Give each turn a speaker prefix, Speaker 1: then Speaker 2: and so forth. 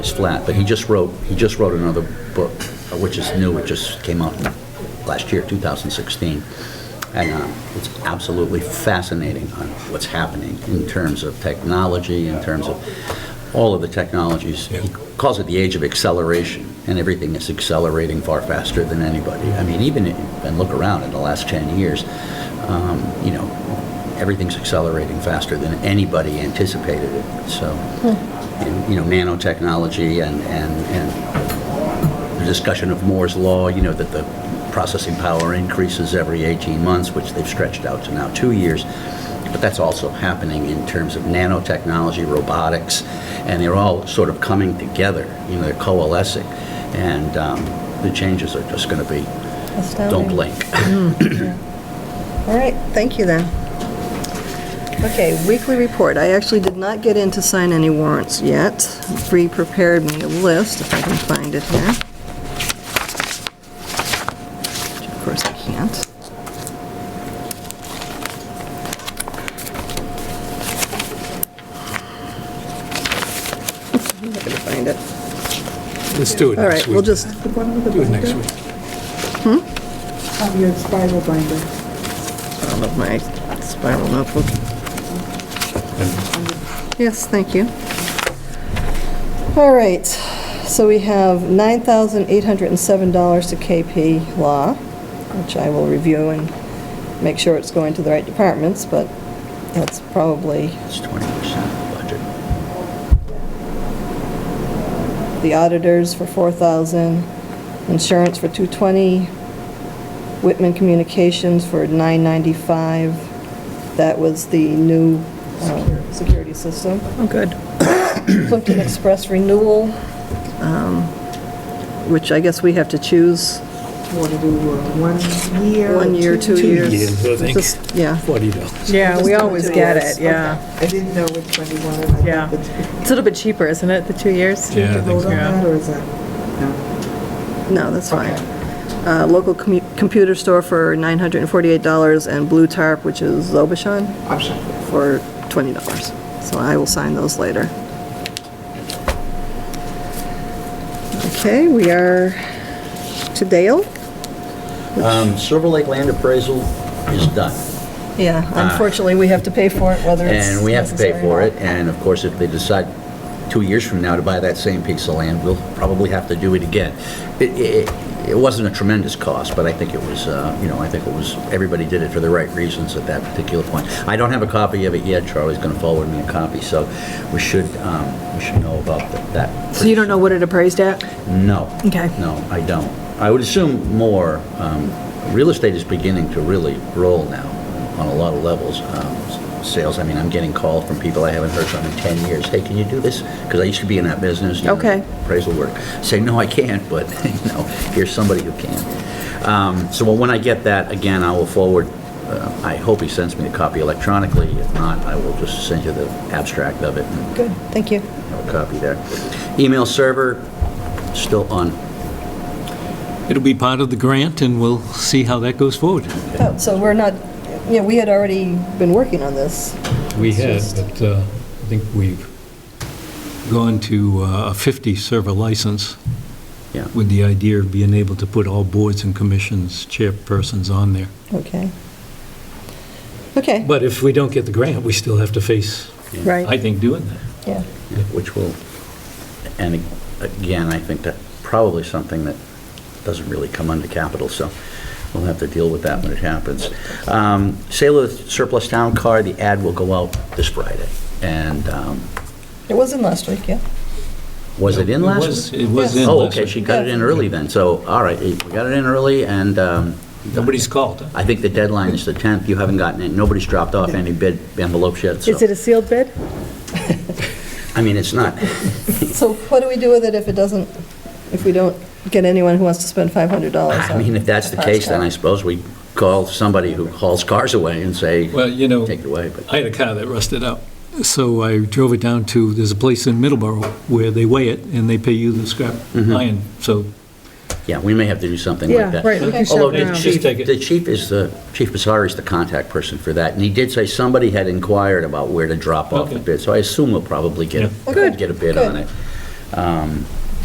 Speaker 1: It's flat, but he just wrote, he just wrote another book, uh, which is new, it just came out last year, 2016. And uh, it's absolutely fascinating on what's happening in terms of technology, in terms of all of the technologies. He calls it the age of acceleration, and everything is accelerating far faster than anybody. I mean, even, if- and look around in the last 10 years, um, you know, everything's accelerating faster than anybody anticipated it, so. And, you know, nanotechnology and, and, and the discussion of Moore's Law, you know, that the processing power increases every 18 months, which they've stretched out to now two years. But that's also happening in terms of nanotechnology, robotics, and they're all sort of coming together, you know, they're coalescing. And um, the changes are just going to be, don't
Speaker 2: Astounding.
Speaker 1: blink.
Speaker 2: All right, thank you then. Okay, weekly report. I actually did not get in to sign any warrants yet. Bree prepared me a list, if I can find it here. Which of course I can't. I'm not going to find it.
Speaker 3: Let's do it
Speaker 2: All
Speaker 3: next
Speaker 2: right,
Speaker 3: week.
Speaker 2: we'll just,
Speaker 4: The one with the
Speaker 3: Do it next
Speaker 4: binder?
Speaker 3: week.
Speaker 4: Oh, your spiral binder.
Speaker 2: I don't know, my spiral notebook. Yes, thank you. All right, so we have $9,807 to KP Law, which I will review and make sure it's going to the right departments, but that's probably,
Speaker 1: It's 20% of the budget.
Speaker 2: the auditors for 4,000, insurance for 220, Whitman Communications for 995. That was the new um, security system.
Speaker 5: Oh, good.
Speaker 2: Plimpton Express renewal, um, which I guess we have to choose.
Speaker 4: Want to do uh, one year?
Speaker 2: One year, two years.
Speaker 3: years, I think.
Speaker 2: Just- Yeah.
Speaker 3: Forty dollars.
Speaker 5: Yeah,
Speaker 4: Just
Speaker 5: we
Speaker 4: do
Speaker 5: always
Speaker 4: two
Speaker 5: get
Speaker 4: years.
Speaker 5: it, yeah.
Speaker 4: Okay. I didn't know which one you wanted. I thought
Speaker 5: Yeah.
Speaker 4: the two-
Speaker 5: It's a little bit cheaper, isn't it, the two years?
Speaker 4: Did
Speaker 3: Yeah,
Speaker 4: you
Speaker 3: I think
Speaker 4: vote
Speaker 3: so.
Speaker 4: on
Speaker 5: Yeah.
Speaker 4: that, or is that? No.
Speaker 2: No, that's fine.
Speaker 4: Okay.
Speaker 2: Uh, Local commu- computer store for $948 and Blue Tarp, which is Zobashan,
Speaker 4: Option.
Speaker 2: for $20. So I will sign those later. Okay, we are to Dale?
Speaker 1: Um, Silver Lake land appraisal is done.
Speaker 2: Yeah, unfortunately, we have to pay for it, whether
Speaker 1: Ah. And we have to pay for it, and of course, if they decide two years from now to buy that same piece of land, we'll probably have to do it again. It, it, it wasn't a tremendous cost, but I think it was, uh, you know, I think it was, everybody did it for the right reasons at that particular point. I don't have a copy of it yet, Charlie's gonna forward me a copy, so we should, um, we should know about th- that.
Speaker 5: So you don't know what it appraised at?
Speaker 1: No.
Speaker 5: Okay.
Speaker 1: No, I don't. I would assume more, um, real estate is beginning to really roll now on a lot of levels. Um, s- Sales, I mean, I'm getting calls from people I haven't heard from in 10 years. Hey, can you do this? Because I used to be in that business. you know,
Speaker 5: Okay.
Speaker 1: Appraisal work. Say, no, I can't, but, you know, here's somebody who can. Um, So when I get that, again, I will forward, uh, I hope he sends me a copy electronically. If not, I will just send you the abstract of it and
Speaker 2: Good, thank you.
Speaker 1: have a copy there. Email server, still on.
Speaker 3: It'll be part of the grant, and we'll see how that goes forward.
Speaker 2: Oh, so we're not, yeah, we had already been working on this.
Speaker 3: We
Speaker 2: It's
Speaker 3: have,
Speaker 2: just-
Speaker 3: but uh, I think we've gone to uh, a 50 server license
Speaker 1: Yeah.
Speaker 3: with the idea of being able to put all boards and commissions, chairpersons on there.
Speaker 2: Okay. Okay,
Speaker 3: But if we don't get the grant, we still have to face, I
Speaker 5: Right.
Speaker 3: think, doing that.
Speaker 2: yeah.
Speaker 1: Which will, and again, I think that probably something that doesn't really come under capital, so we'll have to deal with that when it happens. Um, Sale of the surplus town car, the ad will go out this Friday. And um,
Speaker 2: It was in last week, yeah.
Speaker 1: was it in
Speaker 3: It
Speaker 1: last
Speaker 3: was-
Speaker 1: week?
Speaker 3: It was
Speaker 2: Yes.
Speaker 3: in
Speaker 1: Oh,
Speaker 3: last
Speaker 1: okay,
Speaker 3: week.
Speaker 1: she got it in
Speaker 2: Yeah.
Speaker 1: early then, so, all right, we got it in early, and um,
Speaker 3: Nobody's called.
Speaker 1: I think the deadline is the 10th. You haven't gotten it, nobody's dropped off any bid envelopes yet, so,
Speaker 5: Is it a sealed bid?
Speaker 1: I mean, it's not,
Speaker 2: So what do we do with it if it doesn't, if we don't get anyone who wants to spend $500
Speaker 1: I
Speaker 2: on
Speaker 1: mean, if that's the
Speaker 2: a
Speaker 1: case, then I
Speaker 2: Foxconn?
Speaker 1: suppose we call somebody who hauls cars away and say,
Speaker 3: Well, you know,
Speaker 1: take it away, but
Speaker 3: I had a car that rusted out, so I drove it down to, there's a place in Middleborough where they weigh it and they pay you the scrap
Speaker 1: Mm-hmm.
Speaker 3: iron, so
Speaker 1: yeah, we may have to do something like
Speaker 5: Yeah,
Speaker 1: that.
Speaker 5: right, we can shop
Speaker 1: Although
Speaker 5: around.
Speaker 1: the
Speaker 3: Just
Speaker 1: chief,
Speaker 3: take it.
Speaker 1: the chief is the, Chief Bizarre is the contact person for that, and he did say somebody had inquired about where to drop off the
Speaker 3: Okay.
Speaker 1: bid, so I assume we'll probably get,
Speaker 3: Yeah.
Speaker 1: a-
Speaker 2: Good,
Speaker 1: get a bid
Speaker 2: good.
Speaker 1: on it. Um,